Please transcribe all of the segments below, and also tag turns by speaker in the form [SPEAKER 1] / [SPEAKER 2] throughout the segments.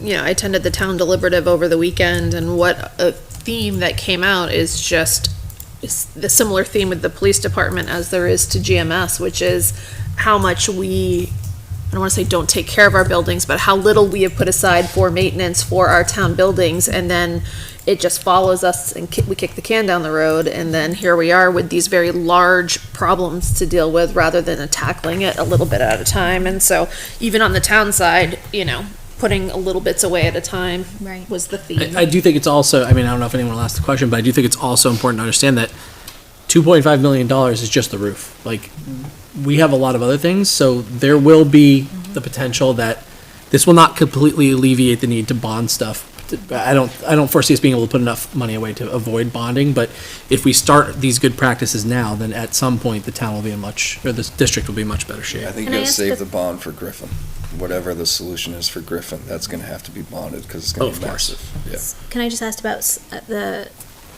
[SPEAKER 1] you know, I attended the town deliberative over the weekend, and what a theme that came out is just s- the similar theme with the police department as there is to GMS, which is how much we, I don't want to say don't take care of our buildings, but how little we have put aside for maintenance for our town buildings, and then it just follows us and ki- we kick the can down the road, and then here we are with these very large problems to deal with rather than tackling it a little bit at a time. And so even on the town side, you know, putting a little bits away at a time
[SPEAKER 2] Right.
[SPEAKER 1] was the theme.
[SPEAKER 3] I, I do think it's also, I mean, I don't know if anyone will ask the question, but I do think it's also important to understand that two point five million dollars is just the roof. Like, we have a lot of other things, so there will be the potential that this will not completely alleviate the need to bond stuff. I don't, I don't foresee us being able to put enough money away to avoid bonding, but if we start these good practices now, then at some point, the town will be in much, or this district will be in much better shape.
[SPEAKER 4] I think
[SPEAKER 1] Can I
[SPEAKER 4] you gotta
[SPEAKER 1] ask
[SPEAKER 4] save
[SPEAKER 1] a-
[SPEAKER 4] the bond for Griffin. Whatever the solution is for Griffin, that's gonna have to be bonded, cause it's
[SPEAKER 3] Oh,
[SPEAKER 4] gonna
[SPEAKER 3] of
[SPEAKER 4] be
[SPEAKER 3] course.
[SPEAKER 4] massive. Yeah.
[SPEAKER 2] Can I just ask about s- uh, the,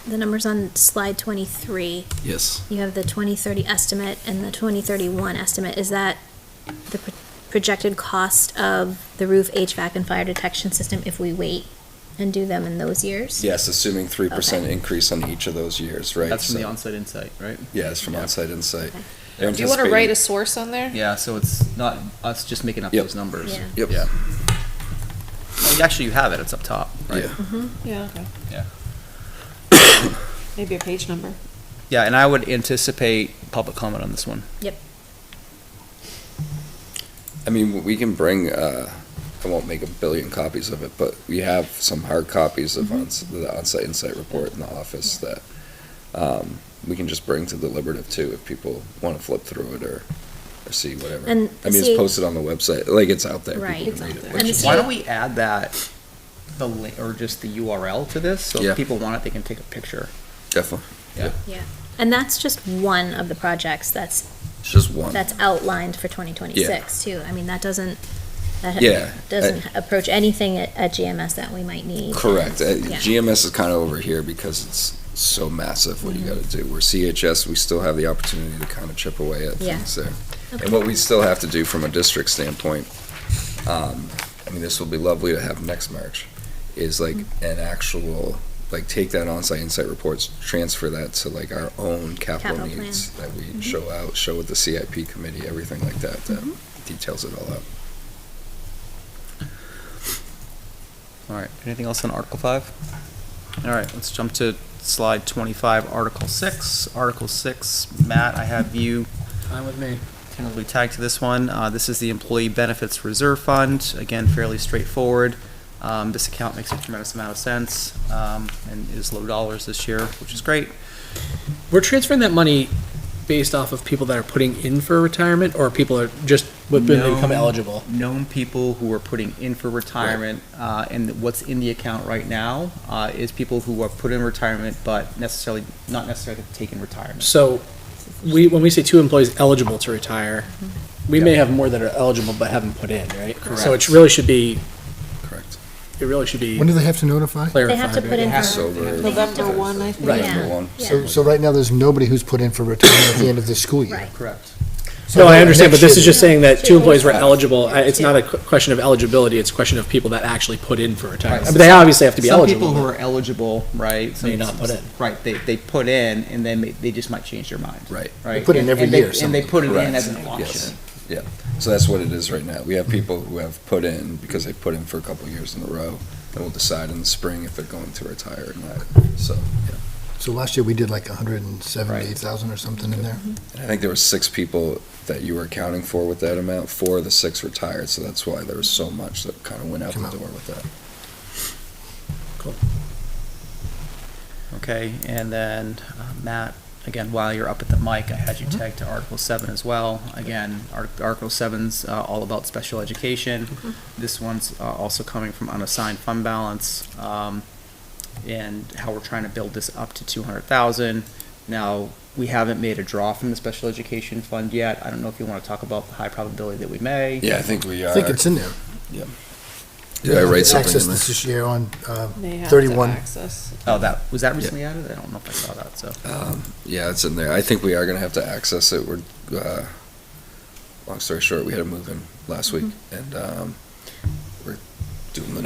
[SPEAKER 2] the numbers on slide 23?
[SPEAKER 3] Yes.
[SPEAKER 2] You have the 2030 estimate and the 2031 estimate. Is that the pro- projected cost of the roof HVAC and fire detection system if we wait and do them in those years?
[SPEAKER 4] Yes, assuming three percent
[SPEAKER 2] Okay.
[SPEAKER 4] increase on each of those years, right?
[SPEAKER 5] That's from the
[SPEAKER 4] So-
[SPEAKER 5] onsite insight, right?
[SPEAKER 4] Yeah, it's from onsite insight.
[SPEAKER 2] Okay.
[SPEAKER 4] They're
[SPEAKER 1] Do you want to write a
[SPEAKER 4] anticipating-
[SPEAKER 1] source on there?
[SPEAKER 5] Yeah, so it's not us just making up
[SPEAKER 4] Yep.
[SPEAKER 5] those numbers.
[SPEAKER 2] Yeah.
[SPEAKER 4] Yep.
[SPEAKER 5] Yeah. Well, Actually, you have it, it's up top, right?
[SPEAKER 4] Yeah.
[SPEAKER 1] Yeah, okay.
[SPEAKER 5] Yeah.
[SPEAKER 1] Maybe a page number.
[SPEAKER 5] Yeah, and I would anticipate public comment on this one.
[SPEAKER 4] I mean, we can bring, uh, I won't make a billion copies of it, but we have some hard copies
[SPEAKER 1] Mm-hmm.
[SPEAKER 4] of ons- the onsite insight report in the office that, um, we can just bring to deliberative too, if people wanna flip through it or, or see whatever.
[SPEAKER 2] And
[SPEAKER 4] I mean,
[SPEAKER 2] see-
[SPEAKER 4] it's posted on the website, like, it's out there.
[SPEAKER 2] Right.
[SPEAKER 4] People
[SPEAKER 2] It's
[SPEAKER 4] can
[SPEAKER 1] out
[SPEAKER 4] read it,
[SPEAKER 1] there.
[SPEAKER 4] which
[SPEAKER 2] And
[SPEAKER 4] is-
[SPEAKER 2] it's-
[SPEAKER 5] Why don't we add that, the, li- or just the URL to this? So
[SPEAKER 4] Yeah.
[SPEAKER 5] if people want it, they can take a picture.
[SPEAKER 4] Definitely,
[SPEAKER 2] And that's just one of the projects that's,
[SPEAKER 4] it's just one.
[SPEAKER 2] that's outlined for 2026 too. I mean, that doesn't, that
[SPEAKER 4] Yeah,
[SPEAKER 2] doesn't approach anything at at GMS that we might need.
[SPEAKER 4] Correct. Uh,
[SPEAKER 2] Yeah.
[SPEAKER 4] GMS is kind of over here because it's so massive what
[SPEAKER 2] Mm-hmm.
[SPEAKER 4] you got to do. Where CHS, we still have the opportunity to kind of chip away at
[SPEAKER 2] Yeah.
[SPEAKER 4] things there.
[SPEAKER 2] Okay.
[SPEAKER 4] And what we still have to do from a district standpoint, um, I mean, this will be lovely to have next March, is like
[SPEAKER 2] Mm-hmm.
[SPEAKER 4] an actual, like take that onsite insight reports, transfer that to like our own
[SPEAKER 2] Capital
[SPEAKER 4] capital,
[SPEAKER 2] plan. Mm-hmm.
[SPEAKER 4] needs that we show out, show with the CIP committee, everything like that that details it all out.
[SPEAKER 5] All right, anything else on Article Five? All right, let's jump to slide twenty-five, Article Six. Article Six, Matt, I have you
[SPEAKER 3] Fine with me.
[SPEAKER 5] tentatively tagged to this one. Uh, this is the Employee Benefits Reserve Fund. Again, fairly straightforward. Um, this account makes a tremendous amount of sense, um, and is low dollars this year, which is great.
[SPEAKER 3] We're transferring that money based off of people that are putting in for retirement or people are just when they become
[SPEAKER 5] No.
[SPEAKER 3] eligible?
[SPEAKER 5] known people who are putting in for retirement, uh, and what's in the account right now, uh, is people who are put in retirement, but necessarily, not necessarily taking retirement.
[SPEAKER 3] So we, when we say two employees eligible to retire, we may have more that are eligible but haven't put in, right? So it
[SPEAKER 5] Correct.
[SPEAKER 3] really should be,
[SPEAKER 4] Correct.
[SPEAKER 3] it really should be
[SPEAKER 6] When do they have to notify?
[SPEAKER 2] They
[SPEAKER 3] clarified.
[SPEAKER 2] have to put in
[SPEAKER 3] right?
[SPEAKER 2] for
[SPEAKER 4] Sober.
[SPEAKER 1] November one, I think.
[SPEAKER 3] Right.
[SPEAKER 2] Yeah,
[SPEAKER 4] Number one.
[SPEAKER 2] yeah.
[SPEAKER 6] So, so right now, there's nobody who's put in for retirement at the end of this school year.
[SPEAKER 2] Right.
[SPEAKER 5] Correct.
[SPEAKER 6] So
[SPEAKER 3] No, I understand, but this
[SPEAKER 6] next
[SPEAKER 3] is
[SPEAKER 6] year-
[SPEAKER 3] just saying that two employees were
[SPEAKER 6] Yeah.
[SPEAKER 3] eligible. I- It's not a qu- question of eligibility, it's a question of people that actually put in for retirement.
[SPEAKER 5] Right.
[SPEAKER 3] But they obviously have to be
[SPEAKER 5] Some people
[SPEAKER 3] eligible.
[SPEAKER 5] who
[SPEAKER 3] but-
[SPEAKER 5] are eligible, right? some-
[SPEAKER 3] May not put in.
[SPEAKER 5] Right, they, they put in, and then they, they just might change their mind.
[SPEAKER 4] Right.
[SPEAKER 5] Right?
[SPEAKER 6] put in
[SPEAKER 5] And-
[SPEAKER 6] every
[SPEAKER 5] and they-
[SPEAKER 6] year,
[SPEAKER 5] And they
[SPEAKER 6] something.
[SPEAKER 5] put it in
[SPEAKER 4] Correct.
[SPEAKER 5] as an
[SPEAKER 4] Yes.
[SPEAKER 5] option.
[SPEAKER 4] Yeah, so that's what it is right now. We have people who have put in because they put in for a couple of years in a row, and we'll decide in the spring if they're going to retire or not. So, yeah.
[SPEAKER 6] So last year, we did like hundred and seventy-eight thousand or something in there.
[SPEAKER 4] And I think there were six people that you were accounting for with that amount. Four of the six retired, so that's why there was so much that kind of went out the
[SPEAKER 6] Come out.
[SPEAKER 4] door with that.
[SPEAKER 5] Okay, and then, uh, Matt, again, while you're up at the mic, I had you tag to Article Seven as well. Again, Ar- Article Seven's uh, all about special education. This one's uh, also coming from unassigned fund balance, um, and how we're trying to build this up to two hundred thousand. Now, we haven't made a draw from the special education fund yet. I don't know if you want to talk about the high probability that we may.
[SPEAKER 4] Yeah, I think we are.
[SPEAKER 6] I think it's in there.
[SPEAKER 4] Did I write something
[SPEAKER 6] Access
[SPEAKER 4] in
[SPEAKER 6] this
[SPEAKER 4] there?
[SPEAKER 6] this year on, uh,
[SPEAKER 1] They have to
[SPEAKER 6] 31.
[SPEAKER 1] access.
[SPEAKER 5] Oh, that, was that recently added? I don't know if I saw that, so.
[SPEAKER 4] Um, Yeah, it's in there. I think we are gonna have to access it. We're, uh, long story short, we had a move-in last week, and um, we're doing the